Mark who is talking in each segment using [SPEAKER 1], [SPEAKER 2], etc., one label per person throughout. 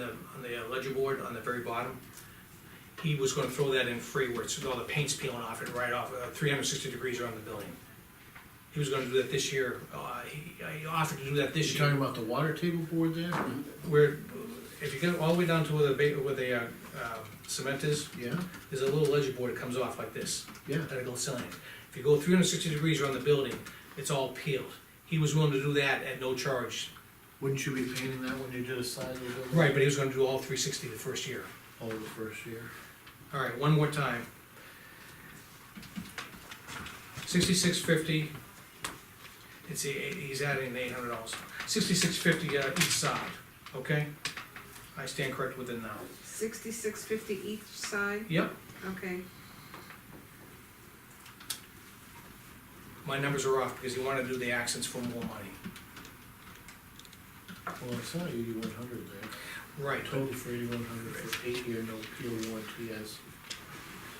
[SPEAKER 1] on the uh, ledger board on the very bottom. He was gonna throw that in free where it's, all the paint's peeling off it right off, uh, three hundred sixty degrees around the building. He was gonna do that this year, uh, he, I offered to do that this
[SPEAKER 2] You
[SPEAKER 1] year.
[SPEAKER 2] talking about the water table board there?
[SPEAKER 1] Where, if you go all the way down to where the, ba- where the, uh, uh, cement is,
[SPEAKER 2] Yeah,
[SPEAKER 1] there's a little ledger board that comes off like this.
[SPEAKER 2] yeah.
[SPEAKER 1] that it goes in. If you go three hundred sixty degrees around the building, it's all peeled. He was willing to do that at no charge.
[SPEAKER 2] Wouldn't you be painting that when you did a side of the building?
[SPEAKER 1] Right, but he was gonna do all three sixty the first year.
[SPEAKER 2] All the first year.
[SPEAKER 1] All right, one more time. Sixty-six fifty. It's, a- he's adding eight hundred dollars. Sixty-six fifty, uh, each side, okay? I stand correct with it now.
[SPEAKER 3] Sixty-six fifty each side,
[SPEAKER 1] Yep,
[SPEAKER 3] okay.
[SPEAKER 1] my numbers are off because he wanted to do the accents for more money.
[SPEAKER 2] Well, it's not eighty-one hundred there.
[SPEAKER 1] Right,
[SPEAKER 2] Total for eighty-one hundred for eight-year no peel warranty as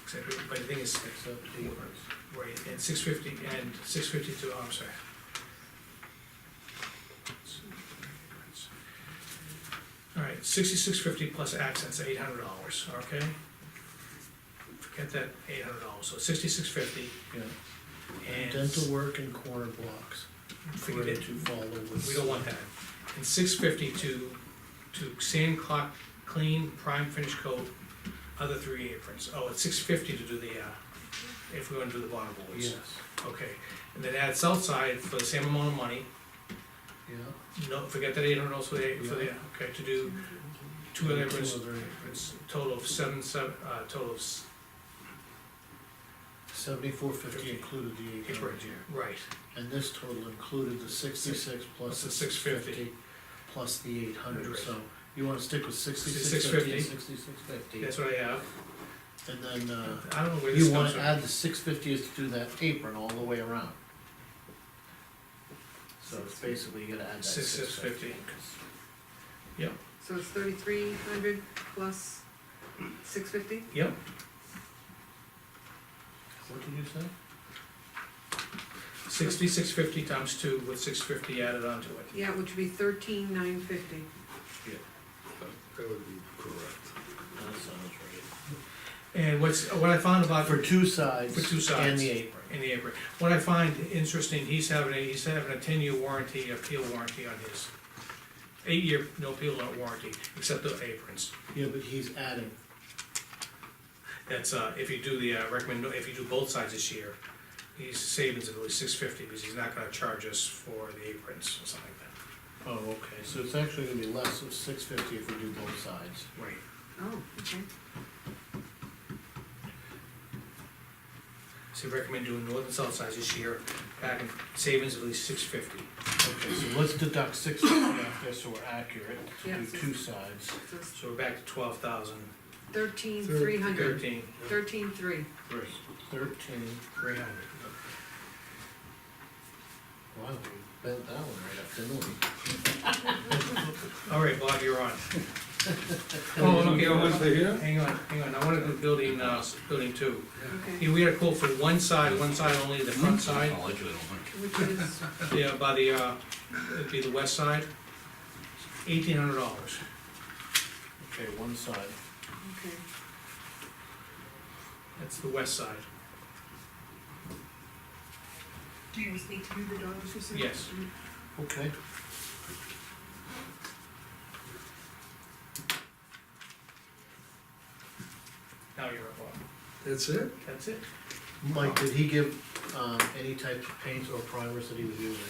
[SPEAKER 1] except, but the thing is,
[SPEAKER 2] except eight months.
[SPEAKER 1] Right, and six fifty, and six fifty-two, I'm sorry. All right, sixty-six fifty plus accents, eight hundred dollars, okay? Forget that eight hundred dollars, so sixty-six fifty
[SPEAKER 2] Yeah.
[SPEAKER 1] and.
[SPEAKER 2] Dental work and corner blocks.
[SPEAKER 1] Forget
[SPEAKER 2] Corner
[SPEAKER 1] it,
[SPEAKER 2] To follow with.
[SPEAKER 1] we don't want that. And six fifty to, to sand clock, clean, prime finish coat, other three aprons. Oh, it's six fifty to do the, uh, if we wanna do the bottom boards.
[SPEAKER 2] Yes,
[SPEAKER 1] Okay, and then add Southside for the same amount of money,
[SPEAKER 2] yeah.
[SPEAKER 1] no, forget that eight hundred also, they- for the, okay, to do two other,
[SPEAKER 2] Two
[SPEAKER 1] it's,
[SPEAKER 2] other aprons.
[SPEAKER 1] it's total of seven, seven, uh, total of, s-
[SPEAKER 2] Seventy-four fifty
[SPEAKER 1] Okay.
[SPEAKER 2] included the eight hundred
[SPEAKER 1] Aprons.
[SPEAKER 2] here.
[SPEAKER 1] right,
[SPEAKER 2] And this total included the sixty-six
[SPEAKER 1] Plus
[SPEAKER 2] plus
[SPEAKER 1] the
[SPEAKER 2] the
[SPEAKER 1] 650.
[SPEAKER 2] six-fifty, plus the eight hundred,
[SPEAKER 1] Right.
[SPEAKER 2] so you wanna stick with sixty-six
[SPEAKER 1] 6650.
[SPEAKER 2] fifty, sixty-six fifty.
[SPEAKER 1] that's what I have,
[SPEAKER 2] And then, uh,
[SPEAKER 1] I don't know where this
[SPEAKER 2] you
[SPEAKER 1] comes
[SPEAKER 2] wanna
[SPEAKER 1] from.
[SPEAKER 2] add the six fifty is to do that apron all the way around. So it's basically you gotta add that
[SPEAKER 1] Six- six
[SPEAKER 2] six fifty.
[SPEAKER 3] So it's thirty-three hundred plus six fifty?
[SPEAKER 1] Yep,
[SPEAKER 2] What did you say?
[SPEAKER 1] sixty-six fifty times two with six fifty added onto it.
[SPEAKER 3] Yeah, which would be thirteen nine fifty.
[SPEAKER 4] That would be correct.
[SPEAKER 2] That sounds right.
[SPEAKER 1] And what's, what I found about
[SPEAKER 2] Uh, For two sides.
[SPEAKER 1] For two
[SPEAKER 2] And
[SPEAKER 1] sides.
[SPEAKER 2] the apron.
[SPEAKER 1] in the apron, what I find interesting, he's having, a he's having a ten-year warranty, a peel warranty on his. Eight-year, no peel warranty, except the aprons.
[SPEAKER 2] Yeah, but he's adding,
[SPEAKER 1] That's, uh, if you do the, uh, recommend, if you do both sides this year, he's savings of at least six fifty, because he's not gonna charge us for the aprons or something like
[SPEAKER 2] oh, okay, so it's actually gonna be less of six fifty if we do both sides.
[SPEAKER 1] that. Right.
[SPEAKER 3] Oh, okay.
[SPEAKER 1] So we recommend doing north and south sides this year, back in savings of at least six fifty.
[SPEAKER 2] Okay, so let's deduct six fifty off this so we're accurate, to
[SPEAKER 3] Yeah.
[SPEAKER 2] do two sides.
[SPEAKER 3] So it's
[SPEAKER 1] So we're back to twelve thousand
[SPEAKER 3] thirteen three hundred,
[SPEAKER 1] thirteen,
[SPEAKER 3] thirteen three.
[SPEAKER 1] three,
[SPEAKER 2] Thirteen,
[SPEAKER 1] three hundred.
[SPEAKER 2] wow, we bent that one right up, didn't we?
[SPEAKER 1] All right, Bob, you're on. Oh, okay, I
[SPEAKER 4] Once
[SPEAKER 1] want-
[SPEAKER 4] they're here?
[SPEAKER 1] hang on, hang on, I wanna do building, uh, building two.
[SPEAKER 3] Okay,
[SPEAKER 1] Here, we had a quote for one side, one side only, the front side,
[SPEAKER 5] I'll let you, I don't think.
[SPEAKER 3] which is,
[SPEAKER 1] Yeah, by the, uh, it'd be the west side, eighteen hundred dollars.
[SPEAKER 2] Okay, one side.
[SPEAKER 3] okay,
[SPEAKER 1] That's the west side,
[SPEAKER 6] Do you just need to do the dollars you said?
[SPEAKER 1] yes.
[SPEAKER 2] Okay.
[SPEAKER 1] Now you're up, Bob.
[SPEAKER 4] That's it?
[SPEAKER 1] That's it.
[SPEAKER 2] Mike, did he give, um, any types of paints or primers that he was using?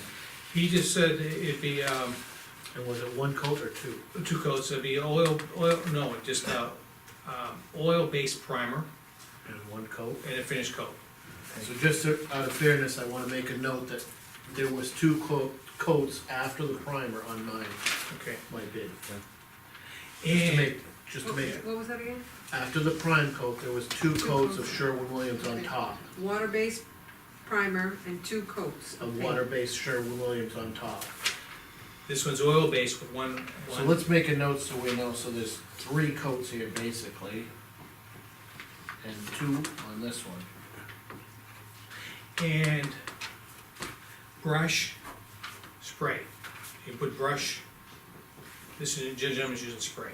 [SPEAKER 1] He just said it'd be, um,
[SPEAKER 2] And was it one coat or two?
[SPEAKER 1] two coats, it'd be oil, oil, no, just, uh, um, oil-based primer
[SPEAKER 2] And one coat?
[SPEAKER 1] and a finish coat.
[SPEAKER 2] So just to- out of fairness, I wanna make a note that there was two coat, coats after the primer on mine,
[SPEAKER 1] Okay.
[SPEAKER 2] my bid. Just to
[SPEAKER 1] And,
[SPEAKER 2] make, just to make,
[SPEAKER 3] what was that again?
[SPEAKER 2] after the prime coat, there was two coats of Sherwin-Williams on top.
[SPEAKER 3] Water-based primer and two coats
[SPEAKER 2] A
[SPEAKER 3] of paint.
[SPEAKER 2] water-based Sherwin-Williams on top.
[SPEAKER 1] this one's oil-based with one,
[SPEAKER 2] So
[SPEAKER 1] one,
[SPEAKER 2] let's make a note so we know, so there's three coats here basically. And two on this one.
[SPEAKER 1] and brush, spray. You put brush, this is, gentleman's using spray.